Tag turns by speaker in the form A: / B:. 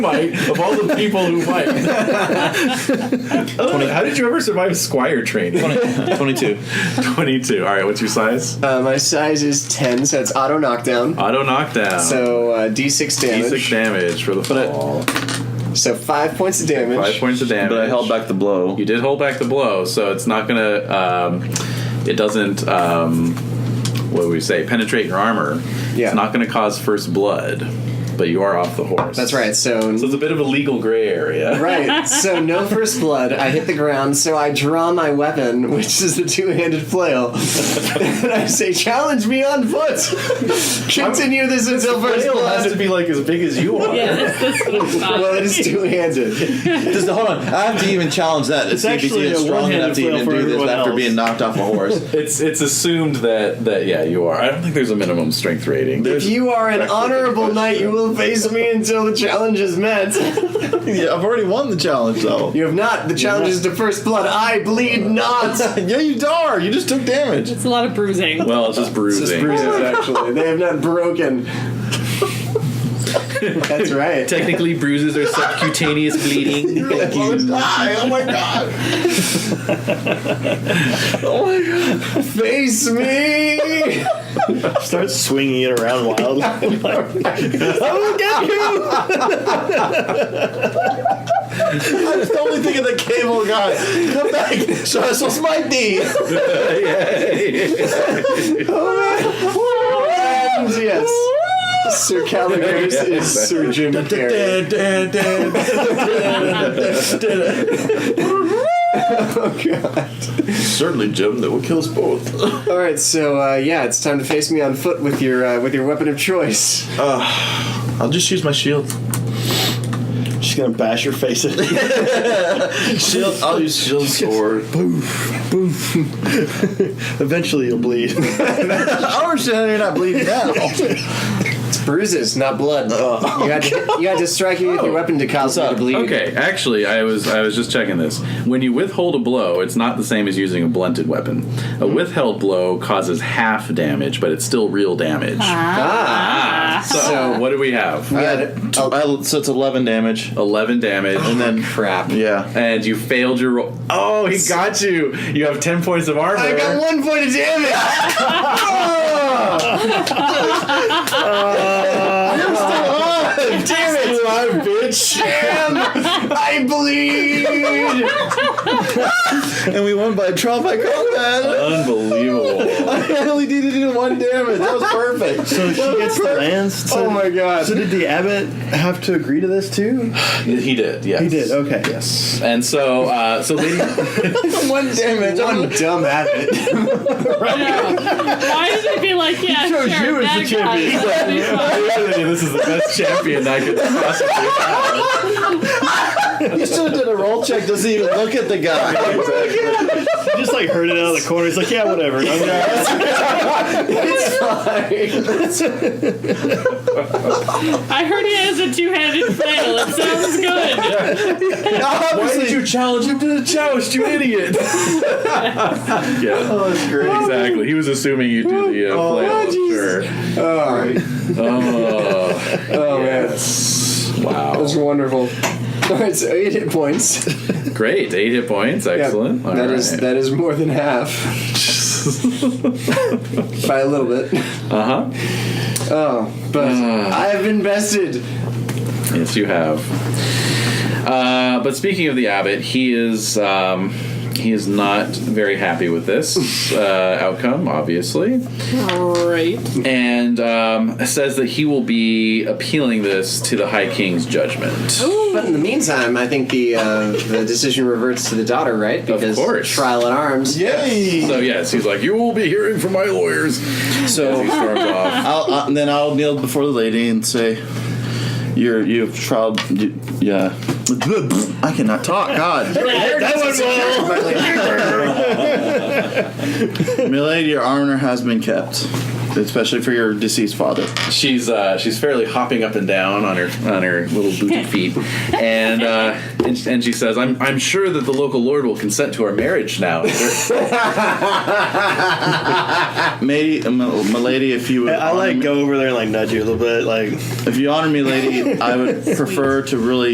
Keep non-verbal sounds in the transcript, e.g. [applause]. A: might of all the people who might. How did you ever survive squire training?
B: 22.
A: 22. All right, what's your size?
C: Uh, my size is 10, so it's auto knockdown.
A: Auto knockdown.
C: So uh, d6 damage.
A: D6 damage for the
B: But I-
A: fall.
C: So five points of damage.
A: Five points of damage.
B: But I held back the blow.
A: You did hold back the blow, so it's not gonna. Um, it doesn't. Um, what would we say? Penetrate your armor.
C: Yeah.
A: It's not gonna cause first blood, but you are off the horse.
C: That's right. So
A: So it's a bit of a legal gray area.
C: right. So no first blood. I hit the ground. So I draw my weapon, which is the two-handed flail, and I say, "Challenge me on foot. Continue this until first
A: Flail has to
C: blood."
A: be like as big as you are.
D: Yeah, that's, that's what I'm talking
C: Well, it is two-handed.
B: Does the, hold on, I have to even challenge that. It's
E: actually a
B: strong
E: one-handed
B: enough to
E: flail
B: even
E: for
B: do this
E: everyone
B: after
E: else.
B: being knocked off a horse.
A: It's it's assumed that that yeah you are. I don't think there's a minimum strength rating.
C: If you are an honorable knight, you will face me until the challenge is met.
B: [laughs] yeah, I've already won the challenge though.
C: You have not. The challenge is to first blood. I bleed not.
B: yeah, you dar. You just took damage.
D: It's a lot of bruising.
A: well, it's just bruising.
C: Just bruises, actually. They have not broken. That's right.
F: Technically, bruises are subcutaneous
B: [laughs]
F: bleeding.
B: Oh my god. Oh
C: Face me!
E: Start swinging it around
B: [laughs]
E: wildly.
B: That's the only thing of the cable guy. Come back. Show us what's my [laughs] knee.
C: And yes. Sir Caligars is Sir Jim Carrey.
A: Certainly, Jim, that will kill us both.
C: All right, so uh, yeah, it's time to face me on foot with your uh, with your weapon of choice.
B: I'll just use my shield.
E: She's gonna bash your face in. it.
A: [laughs]
B: Shield. I'll use shield sword.
E: Eventually, you'll bleed.
B: Our you're not bleeding now.
C: It's bruises, not blood. You had to, you had to strike me with your weapon to cause me to bleed.
A: Okay, actually, I was I was just checking this. When you withhold a blow, it's not the same as using a blunted weapon. A
B: Hmm.
A: withheld blow causes half damage, but it's still real damage.
C: Ah.
A: So,
C: So-
A: what do we have?
C: We had-
B: Uh, tw- I- so it's 11 damage.
A: Eleven damage, and then
C: crap.
B: Yeah.
A: and you failed your roll. Oh, he got you. You have ten points of armor.
C: I got one point of damage. You're still on. Damn it!
A: Alive, bitch.
C: Damn, I bleed.
B: And we won by trial by combat.
A: Unbelievable.
B: I only needed to do one damage. That was perfect.
E: so she gets the lance. So,
C: Oh my god.
E: so did the abbot have to agree to this too?
A: he did. Yes,
E: He did. Okay. Yes.
A: And so, uh, so lady,
C: One damage. One dumb [laughs] abbot.
D: Why did they be like, yeah, sure,
E: you as the
D: that guy.
A: this is the best champion I could possibly.
B: You should have done a roll check. Doesn't even look at the guy.
E: He just like heard it out of the corner. He's like, yeah, whatever. I'm gonna-
D: I heard he has a two-handed flail. It sounds good.
A: Why did you challenge him to the [laughs] joust, you [laughs] idiot? yeah. Oh, that's great. Exactly. He was assuming you do the uh, play. Oh, sure.
C: All right.
A: [laughs] Oh,
C: Oh man, that
A: yes. Wow.
C: was wonderful. All right, so eight hit [laughs] points.
A: Great. Eight hit points. Excellent. All
C: That is
A: right.
C: that is more than
A: [laughs]
C: half by a little bit.
A: Uh huh.
C: Oh, but
A: Uh.
C: I've invested.
A: Yes, you have. Uh, but speaking of the abbot, he is um, he is not very happy with this uh, outcome, obviously.
D: Great.
A: and um, says that he will be appealing this to the High King's judgment.
C: But in the meantime, I think the uh, the decision reverts to the daughter, right? Because
A: course.
C: trial at arms.
B: [laughs] Yay!
A: So yes, he's like, you will be hearing from my lawyers. So he storms off.
B: I'll, uh, then I'll kneel before the lady and say, "You're you've tried, you, yeah." I cannot
E: [laughs]
B: talk. God,
E: that one will.
B: [laughs] milady, your honor has been kept. especially for your deceased father.
A: She's uh, she's fairly hopping up and down on her on her little booty feet, and uh, and, she- and she says, "I'm I'm sure that the local lord will consent to our marriage now."
B: May, uh, my my lady, if you would,
E: I
B: honor
E: like
B: me-
E: go over there and like nudge you a little bit, like. [laughs]
B: if you honor me, lady, I would prefer to really